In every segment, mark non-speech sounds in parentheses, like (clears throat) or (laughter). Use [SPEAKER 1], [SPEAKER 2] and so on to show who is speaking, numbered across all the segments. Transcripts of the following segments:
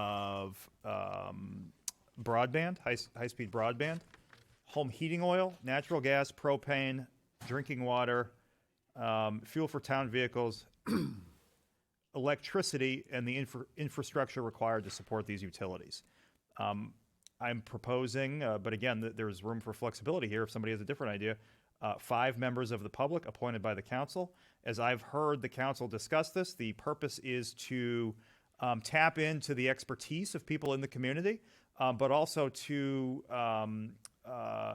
[SPEAKER 1] of um, broadband, high, high-speed broadband, home heating oil, natural gas, propane, drinking water, um, fuel for town vehicles, (clears throat) electricity, and the infra- infrastructure required to support these utilities. Um, I'm proposing, uh, but again, th- there's room for flexibility here if somebody has a different idea. Uh, five members of the public appointed by the council. As I've heard the council discuss this, the purpose is to um, tap into the expertise of people in the community, um, but also to um, uh,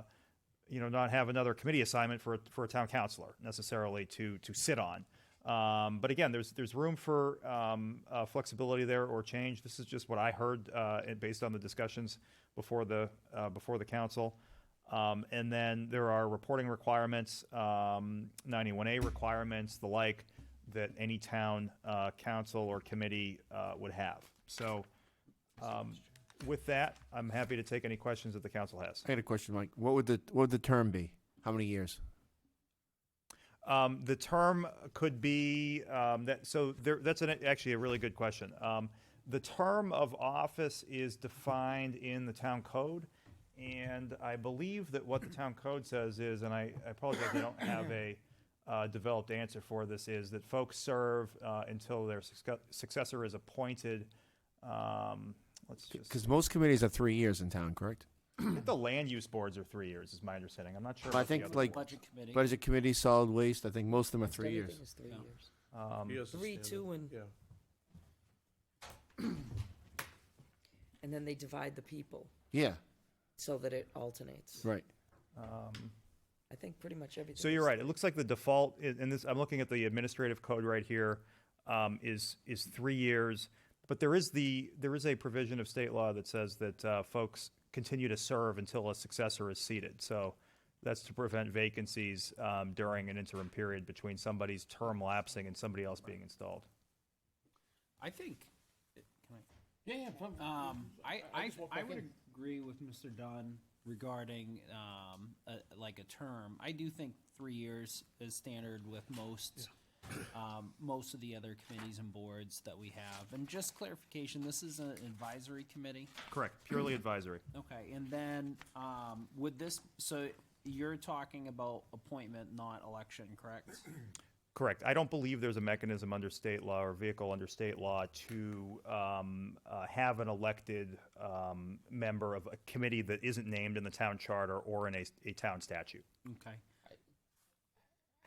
[SPEAKER 1] you know not have another committee assignment for a, for a town councilor necessarily to to sit on. Um, but again, there's there's room for um, uh, flexibility there or change. This is just what I heard uh, and based on the discussions before the uh, before the council. Um, and then there are reporting requirements, um, 91A requirements, the like, that any town uh, council or committee uh, would have. So um, with that, I'm happy to take any questions that the council has.
[SPEAKER 2] I got a question, Mike. What would the what would the term be? How many years?
[SPEAKER 1] Um, the term could be um, that. So there, that's an, actually a really good question. Um, the term of office is defined in the town code, and I believe that what the town code says is, and I, I apologize, I don't have a uh, developed answer for this, is that folks serve uh, until their succe- successor is appointed. Um, let's just
[SPEAKER 2] Because most committees are three years in town, correct?
[SPEAKER 1] I think the land use boards are three years, is my understanding. I'm not sure.
[SPEAKER 2] But I
[SPEAKER 1] about the
[SPEAKER 2] think
[SPEAKER 1] other
[SPEAKER 2] like
[SPEAKER 1] one.
[SPEAKER 3] Budget committee.
[SPEAKER 2] budget committee, solid waste. I think most of them are three
[SPEAKER 4] Everything
[SPEAKER 2] years.
[SPEAKER 4] is three
[SPEAKER 3] Yeah.
[SPEAKER 4] years.
[SPEAKER 1] um,
[SPEAKER 4] Three, two, and,
[SPEAKER 5] Yeah.
[SPEAKER 4] (coughs) and then they divide the people
[SPEAKER 2] Yeah,
[SPEAKER 4] so that it alternates.
[SPEAKER 2] right.
[SPEAKER 1] um,
[SPEAKER 4] I think pretty much everything.
[SPEAKER 1] So you're
[SPEAKER 4] is-
[SPEAKER 1] right. It looks like the default, i- and this, I'm looking at the administrative code right here, um, is, is three years. But there is the, there is a provision of state law that says that, uh, folks continue to serve until a successor is seated. So that's to prevent vacancies, um, during an interim period between somebody's term lapsing and somebody else being installed.
[SPEAKER 3] I think. Can I? Yeah, yeah. Um, I, I, I would agree with Mr. Dunn regarding, um, a- like a term. I do think three years is standard with most, um, most of the other committees and boards that we have. And just clarification, this is an advisory committee.
[SPEAKER 1] Correct. Purely advisory.
[SPEAKER 3] Okay, and then, um, would this, so you're talking about appointment, not election, (clears throat) correct?
[SPEAKER 1] Correct. I don't believe there's a mechanism under state law or vehicle under state law to um, uh, have an elected um, member of a committee that isn't named in the town charter or in a, a town statute.
[SPEAKER 3] Okay,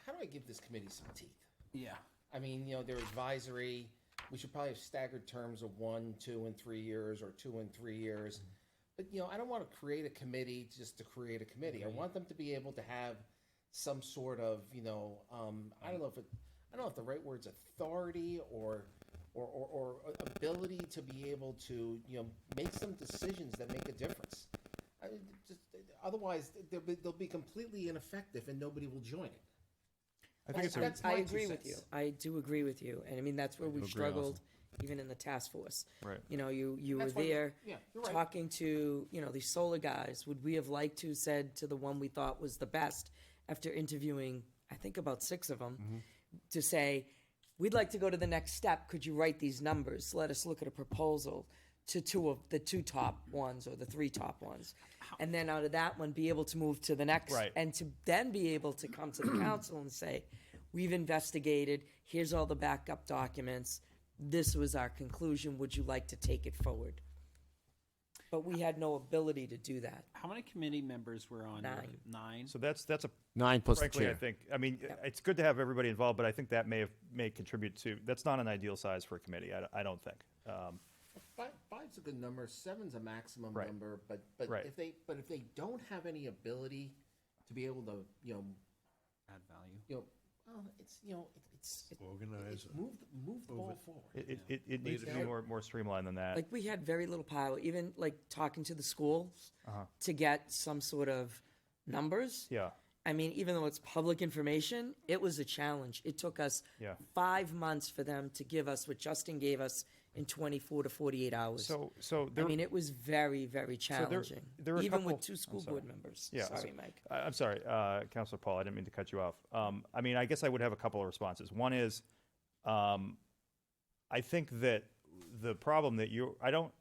[SPEAKER 6] how do I give this committee some teeth?
[SPEAKER 3] yeah,
[SPEAKER 6] I mean, you know, they're advisory. We should probably have staggered terms of one, two, and three years, or two and three years.
[SPEAKER 1] Mm-hmm.
[SPEAKER 6] But, you know, I don't want to create a committee just to create a committee. I want them to be able to have some sort of, you know, um, I
[SPEAKER 1] Mm-hmm.
[SPEAKER 6] don't know if it, I don't know if the right word's authority or, or, or, or ability to be able to, you know, make some decisions that make a difference. I mean, just, otherwise, they'll be, they'll be completely ineffective and nobody will join it.
[SPEAKER 1] I think it's a,
[SPEAKER 6] That's
[SPEAKER 4] I
[SPEAKER 6] my two
[SPEAKER 4] agree with you.
[SPEAKER 6] cents.
[SPEAKER 4] I do agree with you. And I mean, that's where we've struggled, even in the task force.
[SPEAKER 1] Right.
[SPEAKER 4] You know, you, you were
[SPEAKER 6] That's why-
[SPEAKER 4] there
[SPEAKER 6] yeah, you're right.
[SPEAKER 4] talking to, you know, these solar guys. Would we have liked to said to the one we thought was the best after interviewing, I think about six of them, to say, we'd like to go to the next step. Could you write these numbers? Let us look at a proposal to two of the two top ones or the three top ones. And then out of that one, be able to move to the next
[SPEAKER 1] Right.
[SPEAKER 4] and to then be able to come to the council and say, we've investigated, here's all the backup documents, this was our conclusion, would you like to take it forward? But we had no ability to do that.
[SPEAKER 3] how many committee members were on?
[SPEAKER 4] Nine.
[SPEAKER 3] Nine?
[SPEAKER 1] so that's that's a
[SPEAKER 2] Nine plus the
[SPEAKER 1] frankly, I
[SPEAKER 2] chair.
[SPEAKER 1] think. I mean, it's good to have everybody involved, but I think that may have may contribute to. That's not an ideal size for a committee. I, don't- I don't think. Um,
[SPEAKER 6] Five, five's a good number. Seven's a maximum
[SPEAKER 1] Right.
[SPEAKER 6] number, but but
[SPEAKER 1] Right.
[SPEAKER 6] if they but if they don't have any ability to be able to you know
[SPEAKER 3] Add value.
[SPEAKER 6] you know well it's you know it, it's it,
[SPEAKER 5] Organize
[SPEAKER 6] it's move the- move the ball forward.
[SPEAKER 1] it, it, it needs to be more more streamlined than that.
[SPEAKER 4] Like, we had very little power, even like talking to the schools to get some sort of numbers.
[SPEAKER 1] Uh-huh. yeah.
[SPEAKER 4] I mean, even though it's public information, it was a challenge. It took us
[SPEAKER 1] Yeah.
[SPEAKER 4] five months for them to give us what Justin gave us in 24 to 48 hours.
[SPEAKER 1] So so
[SPEAKER 4] I
[SPEAKER 1] there.
[SPEAKER 4] mean, it was very, very
[SPEAKER 1] there-
[SPEAKER 4] challenging,
[SPEAKER 1] there are a
[SPEAKER 4] even with
[SPEAKER 1] couple-
[SPEAKER 4] two school board members.
[SPEAKER 1] Yeah,
[SPEAKER 4] Sorry,
[SPEAKER 1] so-
[SPEAKER 4] Mike.
[SPEAKER 1] I- I'm sorry, uh, Counselor Paul, I didn't mean to cut you off. Um, I mean, I guess I would have a couple of responses. One is, um, I think that the problem that you I don't